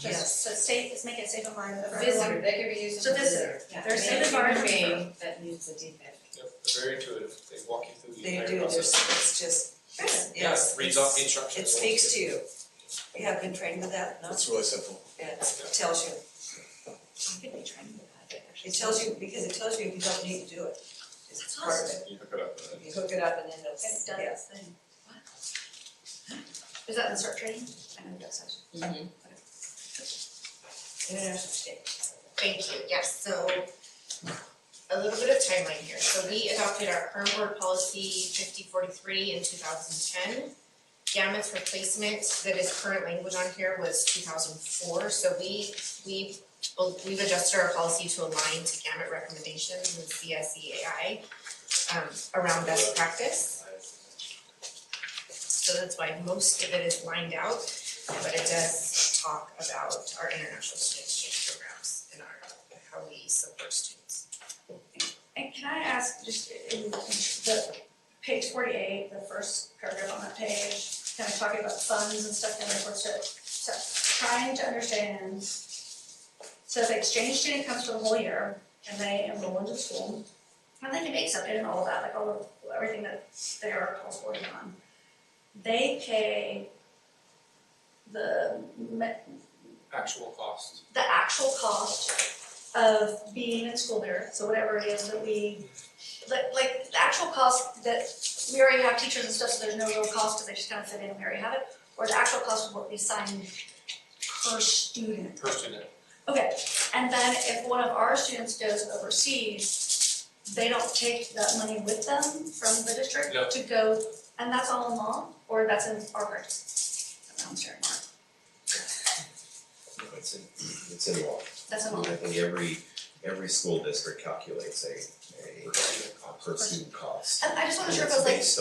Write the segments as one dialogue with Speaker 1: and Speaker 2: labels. Speaker 1: Yes.
Speaker 2: just so safe, let's make it safe environment for
Speaker 1: Visitor,
Speaker 2: everyone.
Speaker 1: they could be used as
Speaker 2: So
Speaker 1: a
Speaker 2: this-
Speaker 1: visitor.
Speaker 2: yeah,
Speaker 1: They're a
Speaker 2: make
Speaker 1: safe
Speaker 2: it human
Speaker 1: environment
Speaker 2: being.
Speaker 1: for- that needs the defect.
Speaker 3: Yep, they're very intuitive, they walk you through the
Speaker 4: They
Speaker 3: entire
Speaker 4: do, there's,
Speaker 3: process.
Speaker 4: it's just,
Speaker 2: Good.
Speaker 4: yes,
Speaker 3: Yeah, reads off the
Speaker 4: it's-
Speaker 3: instructions.
Speaker 4: it speaks to you. You have been trained with that, no?
Speaker 5: It's really simple.
Speaker 4: It tells you,
Speaker 1: You could be trained with that, but actually-
Speaker 4: it tells you, because it tells you you don't need to do it. It's part of it.
Speaker 5: You hook it up and
Speaker 4: You hook it up and then it'll,
Speaker 2: It's done
Speaker 4: yeah.
Speaker 2: its thing. Is that in start training? I know it does. have-
Speaker 4: International state.
Speaker 6: Thank you, yes, so a little bit of timeline here. So we adopted our current board policy fifty forty-three in two thousand ten. Gamma's replacement that is current language on here was two thousand four, so we we we've adjusted our policy to align to gamut recommendations and CSEAI um around best practice. So that's why most of it is lined out, but it does talk about our international student exchange programs and our, how we support students.
Speaker 2: And can I ask, just in the page forty-eight, the first paragraph on that page, kind of talking about funds and stuff, and I was so trying to understand. So if exchange student comes for the whole year and they enroll into school, and they can be accepted and all of that, like all of, everything that they are called for and on. They pay the me-
Speaker 3: Actual cost.
Speaker 2: the actual cost of being in school there, so whatever it is that we, like, like, the actual cost that, we already have teachers and stuff, so there's no real cost, because they just kind of fit in, and we already have it, or the actual cost of what we assign per student.
Speaker 3: Per student,
Speaker 2: Okay, and then if one of our students goes overseas, they don't take that money with them from the district
Speaker 3: No.
Speaker 2: to go, and that's all in law, or that's in our parks? I'm sorry,
Speaker 7: It's in, it's in law.
Speaker 2: that's in
Speaker 7: I
Speaker 2: law,
Speaker 7: mean, I think every, every school district calculates a,
Speaker 3: per
Speaker 7: a
Speaker 3: student cost.
Speaker 7: per student cost.
Speaker 2: and I just wasn't sure if it was
Speaker 7: And it's
Speaker 2: like
Speaker 7: Based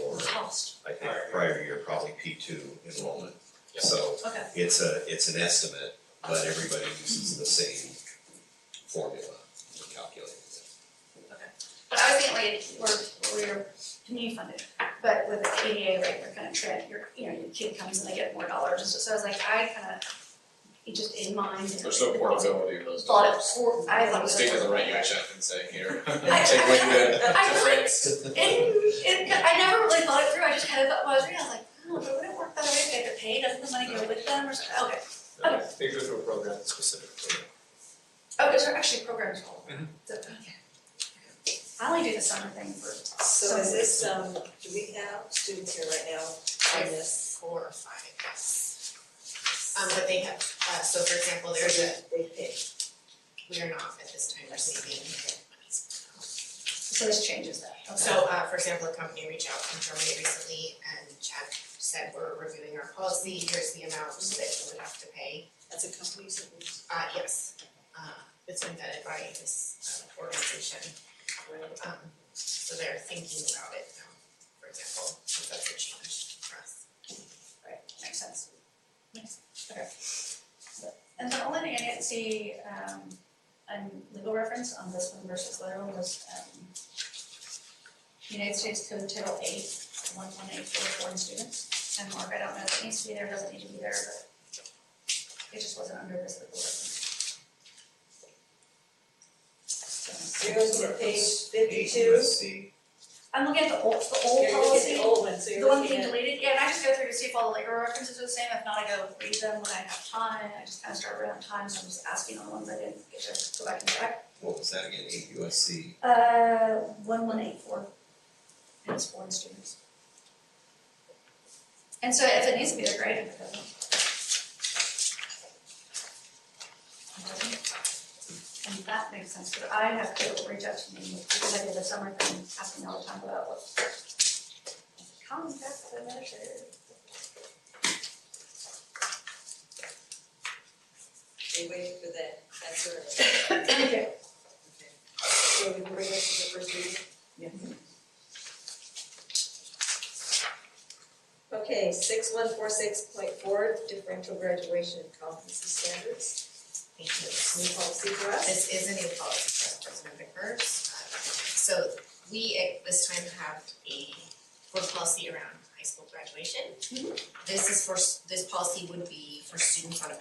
Speaker 7: on your,
Speaker 2: cost.
Speaker 7: I think, prior year, probably P two enrollment.
Speaker 3: Yeah.
Speaker 7: So
Speaker 2: Okay.
Speaker 7: it's a, it's an estimate, but everybody uses the same formula for calculating it.
Speaker 2: But I was thinking like, we're, we're community funded, but with the ADA rate, we're kind of track, your, you know, your kid comes and they get more dollars, and so, so I was like, I kind of, it just in mind.
Speaker 5: There's no portability of those
Speaker 2: Thought it
Speaker 5: dollars.
Speaker 2: was, hor- I thought it
Speaker 5: The
Speaker 2: was.
Speaker 5: state doesn't write you a check and say, here, take
Speaker 2: I-
Speaker 5: what you did
Speaker 2: I-
Speaker 5: to France.
Speaker 2: And, and I never really thought it through, I just kind of thought, well, I was reading, I was like, oh, but would it work that way if they get paid, doesn't the money go with them or something, okay.
Speaker 3: Yeah, They go through a program, a specific program.
Speaker 2: Oh, because they're actually programs all over,
Speaker 5: Mm-hmm.
Speaker 3: Mhm.
Speaker 2: so, okay. I only do the summer thing for,
Speaker 4: So is this, um, do we have students here right now on this?
Speaker 6: Four or five, yes. Um, but they have, uh, so for example, there's a,
Speaker 4: They pay.
Speaker 6: we are not at this time receiving monies.
Speaker 2: so this changes that, okay.
Speaker 6: So, uh, for example, a company reached out from Germany recently and Chad said, we're reviewing our policy, here's the amount that you would have to pay.
Speaker 4: That's a company, so we-
Speaker 6: Uh, yes, uh, it's been vetted by this uh, organization. Um, so they're thinking about it now, for example, if that's a change for us.
Speaker 2: Right, makes sense. Makes sense, okay. And the only thing I didn't see, um, on legal reference on this one versus the other one was, um, United States Code Title Eight, one one eight for foreign students, and Mark, I don't know if it needs to be there, doesn't need to be there, but it just wasn't under this legal reference. So,
Speaker 4: You're looking at page fifty-two.
Speaker 7: USC.
Speaker 2: I'm looking at the old, the old
Speaker 4: You're looking at
Speaker 2: policy.
Speaker 4: the old one, so
Speaker 2: The
Speaker 4: you're
Speaker 2: one
Speaker 4: looking
Speaker 2: being
Speaker 4: at,
Speaker 2: deleted, yeah, and I just go through to see if all the legal references are the same, if not, I go read them when I have time, I just kind of start around time, so I'm just asking on the ones I didn't get to go back and check.
Speaker 7: What was that again? Eight USC.
Speaker 2: Uh, one one eight four, and it's foreign students. And so if it needs to be, they're great, if it doesn't. It doesn't. And that makes sense, but I have to reach out to me, because I did the summer thing, asking all the time about what. Common facts are measured.
Speaker 4: they waiting for that, that's sort of,
Speaker 2: Okay.
Speaker 4: so we can bring it to the first reading? Okay, six one four six point four, differential graduation and competency standards,
Speaker 6: Thank you.
Speaker 4: new policy for us.
Speaker 6: This is a new policy for us, President Vickers. Uh, So we at this time have a board policy around high school graduation. This is for, s- this policy would be for students on a